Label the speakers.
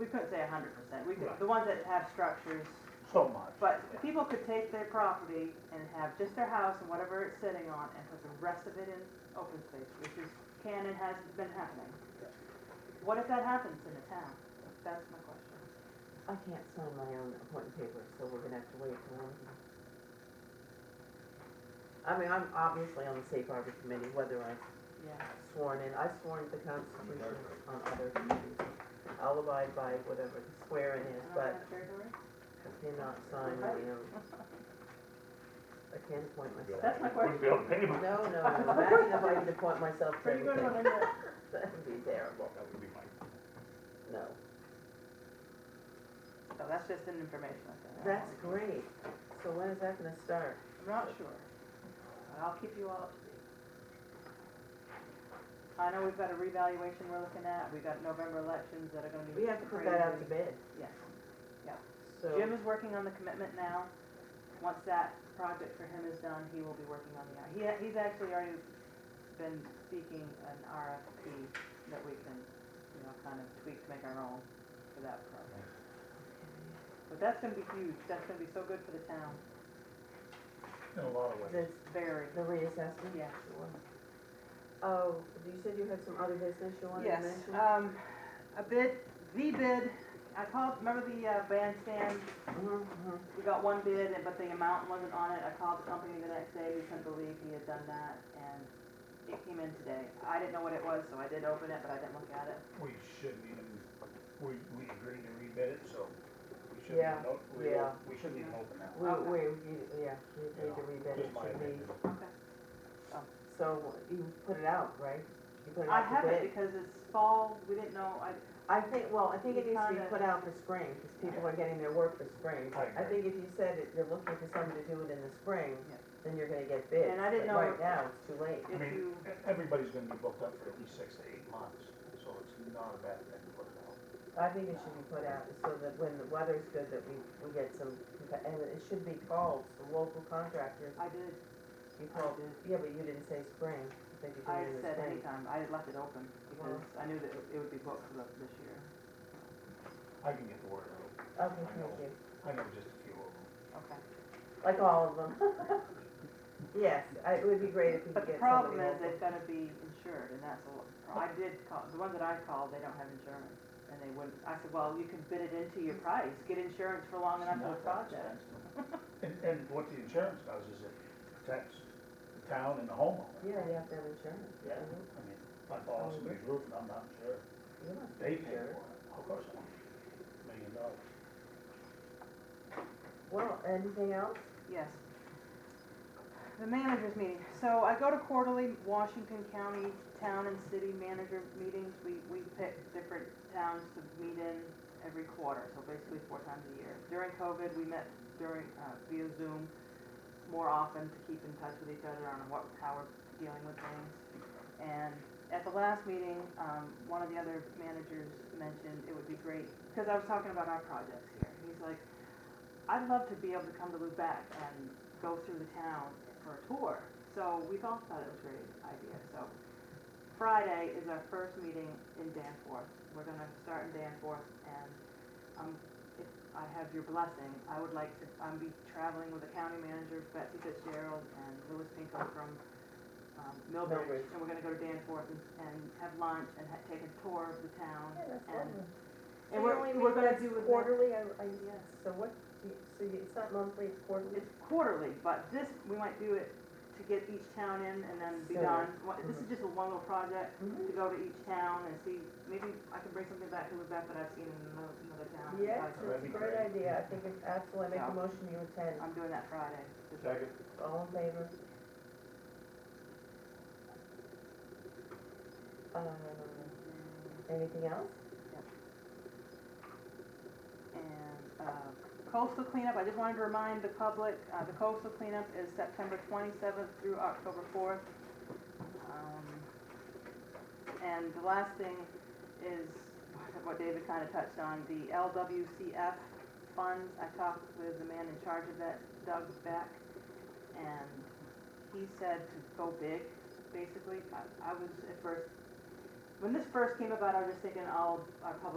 Speaker 1: we couldn't say a hundred percent, we could,
Speaker 2: Right.
Speaker 1: the ones that have structures,
Speaker 2: so much.
Speaker 1: but people could take their property and have just their house and whatever it's sitting on and put the rest of it in open space, which is, can and has been happening. What if that happens in a town? That's my question.
Speaker 3: I can't sign my own appointment papers, so we're gonna have to wait till Wednesday. I mean, I'm obviously on the safe harbor committee, whether I'm
Speaker 1: Yeah.
Speaker 3: sworn in, I've sworn to the Constitution on other committees. I'll abide by whatever the swearing is, but I cannot sign my own. I can't appoint myself.
Speaker 1: That's my
Speaker 2: Wouldn't be able
Speaker 1: question.
Speaker 2: to pay
Speaker 3: No,
Speaker 2: them.
Speaker 3: no, no, imagine if I could appoint myself to
Speaker 1: Pretty good
Speaker 3: everything,
Speaker 1: one, isn't it?
Speaker 3: that'd be terrible,
Speaker 2: That would be my,
Speaker 3: no.
Speaker 1: So that's just an information I got.
Speaker 3: That's great, so when is that gonna start?
Speaker 1: I'm not sure, but I'll keep you all up to date. I know we've got a revaluation we're looking at, we've got November elections that are gonna be.
Speaker 3: We have to put that out to
Speaker 1: crazy.
Speaker 3: bid,
Speaker 1: Yes.
Speaker 3: so.
Speaker 1: Jim is working on the commitment now. Once that project for him is done, he will be working on the, he, he's actually already been seeking an RFP that we can, you know, kind of tweak to make our own for that project. But that's gonna be huge, that's gonna be so good for the town,
Speaker 2: in a lot of ways.
Speaker 3: This,
Speaker 1: very,
Speaker 3: the reassessment?
Speaker 1: Yeah.
Speaker 3: Sure. Oh, you said you had some other business you wanted to
Speaker 1: Yes,
Speaker 3: mention?
Speaker 1: um, a bid, the bid, I called, remember the uh, bandstand?
Speaker 3: Mhm, mhm.
Speaker 1: We got one bid, and- but the amount wasn't on it. I called the company the next day, we couldn't believe he had done that, and it came in today. I didn't know what it was, so I did open it, but I didn't look at it.
Speaker 4: We shouldn't even, we, we agreed to rebid it, so we shouldn't,
Speaker 3: Yeah,
Speaker 4: even op- we,
Speaker 3: yeah.
Speaker 4: we shouldn't even open that.
Speaker 3: We,
Speaker 1: Okay.
Speaker 3: we, you- yeah, we need to rebid it,
Speaker 4: Just my
Speaker 3: should we,
Speaker 4: opinion.
Speaker 1: Okay.
Speaker 3: so you put it out, right? You put it
Speaker 1: I
Speaker 3: out to
Speaker 1: haven't,
Speaker 3: bid.
Speaker 1: because it's fall, we didn't know, I,
Speaker 3: I think, well, I think it
Speaker 1: You
Speaker 3: needs to be
Speaker 1: kinda-
Speaker 3: put out for spring, because people are getting their work for spring.
Speaker 4: I
Speaker 3: I think if you said that you're looking for someone to do it in the spring,
Speaker 1: Yeah.
Speaker 3: then you're gonna get bids.
Speaker 1: And I didn't
Speaker 3: but
Speaker 1: know-
Speaker 3: Right now, it's too late.
Speaker 1: if
Speaker 4: mean,
Speaker 1: you,
Speaker 4: E- Everybody's gonna be booked up for at least six to eight months, so it's not a bad thing to put it out.
Speaker 3: I think it should be put out so that when the weather's good, that we, we get some, compa- and it should be called, the local contractors,
Speaker 1: I did,
Speaker 3: you
Speaker 1: I
Speaker 3: called,
Speaker 1: did.
Speaker 3: yeah, but you didn't say spring, I think you
Speaker 1: I
Speaker 3: did it in the
Speaker 1: said
Speaker 3: spring. Uh-huh.
Speaker 1: anytime, I had left it open, because I knew that it it would be booked for the- this year.
Speaker 4: I can get the word out,
Speaker 3: Okay, thank you,
Speaker 4: I know just a few of them.
Speaker 1: Okay.
Speaker 3: like all of them. Yes, I, it would be great if we
Speaker 1: But the
Speaker 3: could get
Speaker 1: problem
Speaker 3: somebody
Speaker 1: is,
Speaker 3: local.
Speaker 1: they've gotta be insured, and that's a, lo- I did call, the ones that I called, they don't have insurance, and they wouldn't, I said, well, you can bid it into your price, get insurance for long enough
Speaker 4: It's
Speaker 1: for
Speaker 4: not
Speaker 1: the
Speaker 4: that
Speaker 1: project.
Speaker 4: expensive. And, and what the insurance does is it protects the town and the homeowner.
Speaker 3: Yeah, you have to have insurance.
Speaker 4: Yeah, I mean, if I fall on somebody's roof and I'm not sure,
Speaker 3: You must
Speaker 4: they
Speaker 3: be
Speaker 4: pay
Speaker 3: sure.
Speaker 4: for it, of course, I want a million dollars.
Speaker 3: Well, anything else?
Speaker 1: Yes. The managers meeting, so I go to quarterly Washington County Town and City Manager meetings, we, we pick different towns to meet in every quarter, so basically four times a year. During COVID, we met during, uh, via Zoom more often to keep in touch with each other on what, how we're dealing with things. And at the last meeting, um, one of the other managers mentioned it would be great, because I was talking about our projects here. He's like, I'd love to be able to come to Lubec and go through the town for a tour. So we both thought it was a great idea, so Friday is our first meeting in Danforth. We're gonna start in Danforth and, um, if I have your blessing, I would like to, I'm be traveling with the county manager, Betsy Fitzgerald and Louis Pinkham from, um, Millbridge.
Speaker 3: Millbridge.
Speaker 1: And we're gonna go to Danforth and, and have lunch and ha take a tour of the town and,
Speaker 5: So you
Speaker 1: and we're,
Speaker 5: only
Speaker 1: we're
Speaker 5: meet
Speaker 1: gonna
Speaker 5: once
Speaker 1: do. a-
Speaker 5: Quarterly, I, I,
Speaker 1: Yes.
Speaker 3: So what, do you- so you- it's not monthly, it's quarterly?
Speaker 1: It's quarterly, but this, we might do it to get each town in and then be
Speaker 3: Sure.
Speaker 1: done. What- This is just a one little project
Speaker 3: Mhm.
Speaker 1: to go to each town and see, maybe I can bring something back to Lubec that I've seen in another, another town.
Speaker 3: Yes,
Speaker 1: Like,
Speaker 3: it's a great idea, I think it's absolutely, I make a motion you attend,
Speaker 1: I'm doing that Friday.
Speaker 3: all in favor? Um, anything else?
Speaker 1: And uh, coastal cleanup, I just wanted to remind the public, uh, the coastal cleanup is September 27th through October 4th. Um, And the last thing is what David kind of touched on, the LWCF funds. I talked with the man in charge of that, Doug Beck, and he said to go big, basically. I- I was at first, when this first came about, I was just thinking, all our public